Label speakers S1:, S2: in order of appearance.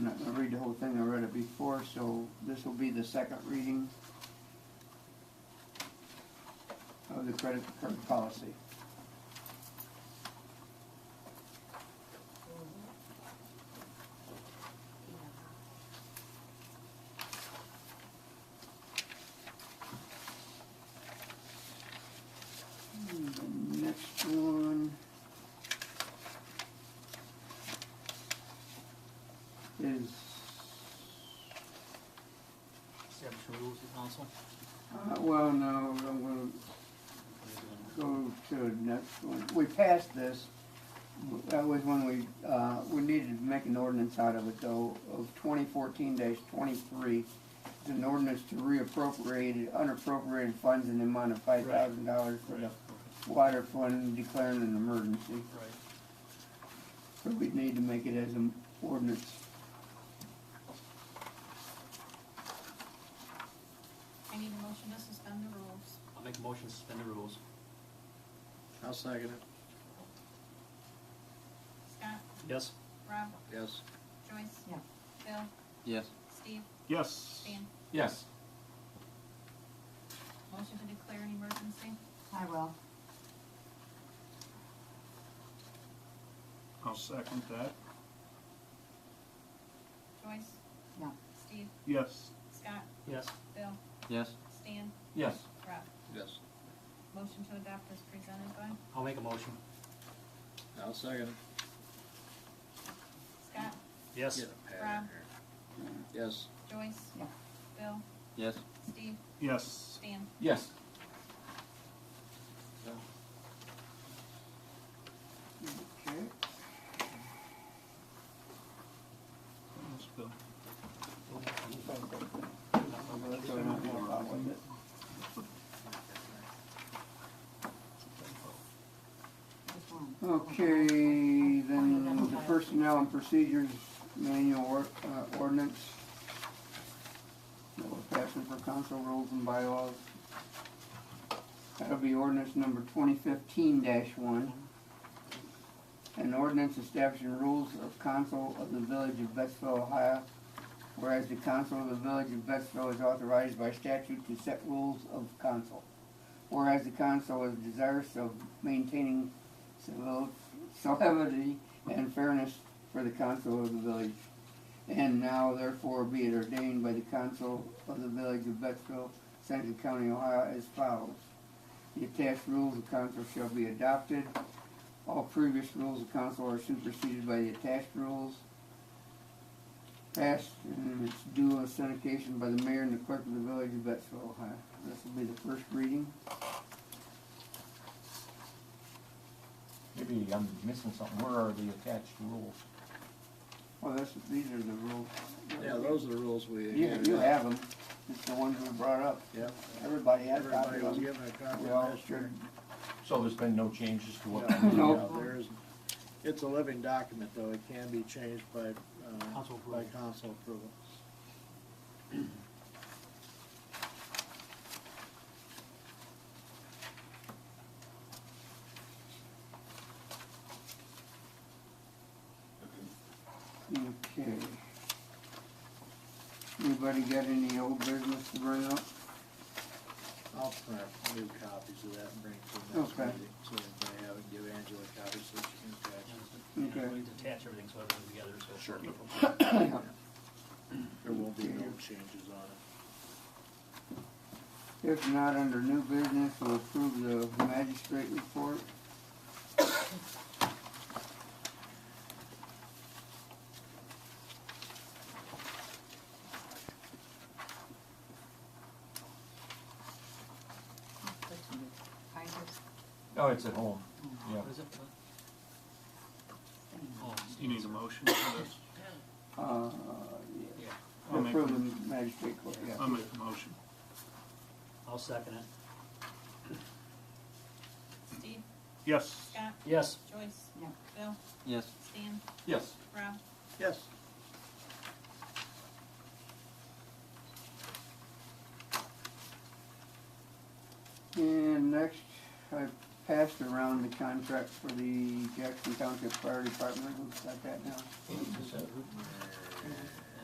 S1: it before, so this will be the second reading of the credit card policy. And Hmm, The next one is,
S2: Establish the rules of council.
S1: uh, well, no, I'm gonna go to the next one. We passed this. That was when we, uh, we needed to make an ordinance out of it though, of twenty fourteen twenty-three. It's an ordinance to reappropriate unappropriated funds in the amount of five thousand dollars for the
S2: Right,
S1: water fund declaring an emergency.
S2: right.
S1: So we'd need to make it as an ordinance.
S3: I need a motion to suspend the rules.
S2: I'll make a motion to suspend the rules.
S4: I'll second it.
S3: Scott,
S2: Yes?
S3: Rob,
S4: Yes.
S3: Joyce.
S5: Yeah.
S3: Bill,
S4: Yes.
S3: Steve,
S6: Yes.
S3: Dan.
S6: Yes.
S3: Motion to declare an emergency.
S5: I will.
S6: I'll second that.
S3: Joyce,
S5: Yeah.
S3: Steve,
S6: Yes.
S3: Scott,
S2: Yes.
S3: Bill,
S4: Yes.
S3: Stan,
S6: Yes.
S3: Rob.
S4: Yes.
S3: Motion to adopt as presented by
S2: I'll make a motion.
S4: I'll second it.
S3: Scott,
S2: Yes?
S4: Get a pad in here. Yes.
S3: Joyce.
S5: Yeah.
S3: Bill,
S4: Yes.
S3: Steve,
S6: Yes.
S3: Stan.
S6: Yes.
S1: Okay.
S6: Yes, Bill.
S1: So we're not gonna bother with it.
S5: Just one.
S1: Okay, then the Personnel and Procedures Manual or- uh, Ordinance. That we're passing for council rules and bylaws. That'll be ordinance number twenty fifteen one. An ordinance establishing rules of council of the village of Betsville, Ohio. Whereas the council of the village of Betsville is authorized by statute to set rules of council. Whereas the council is desirous of maintaining civil solemnity and fairness for the council of the village. And now therefore be it ordained by the council of the village of Betsville, Seneca County, Ohio as follows. The attached rules of council shall be adopted. All previous rules of council are superseded by the attached rules. Passed and its due on syndication by the mayor and the clerk of the village of Betsville, Ohio. This will be the first reading.
S7: Maybe I'm missing something. Where are the attached rules?
S1: Well, this, these are the rules.
S4: Yeah, those are the rules we.
S1: You,
S4: handed
S1: you
S4: out.
S1: have them, it's the ones we brought up,
S4: Yep.
S1: everybody has copies
S4: Everybody was
S1: of
S4: given
S1: them.
S4: a copy
S1: We all
S4: last year.
S7: So there's been no changes to what?
S4: Yeah,
S1: No.
S4: yeah, There is, it's a living document though. It can be changed by, uh,
S2: Council
S4: by
S2: approval.
S4: council approval.
S1: Okay. Anybody got any old business to bring up?
S4: I'll print new copies of that and bring it to the next
S1: Okay.
S4: meeting. So if I haven't give Angela copies so she can attach.
S1: Okay.
S2: We need to attach everything so everything's together, so.
S4: Sure.
S1: Yeah.
S4: There won't be no changes on it.
S1: If not, under new business, we'll approve the magistrate report.
S5: I just,
S7: Oh, it's at home. Yeah.
S2: What is it? Oh,
S6: You need a motion for this?
S1: Uh,
S2: Yeah,
S1: yeah,
S6: I'll make,
S1: approve the magistrate court,
S6: I'll
S1: yeah.
S4: Um,
S6: make a motion.
S2: I'll second it.
S3: Steve,
S6: Yes.
S3: Scott,
S2: Yes.
S3: Joyce.
S5: Yeah.
S3: Bill,
S4: Yes.
S3: Stan,
S6: Yes.
S3: Rob.
S4: Yes.
S1: And next, I passed around the contract for the Jackson Township Fire Department, we've got that now.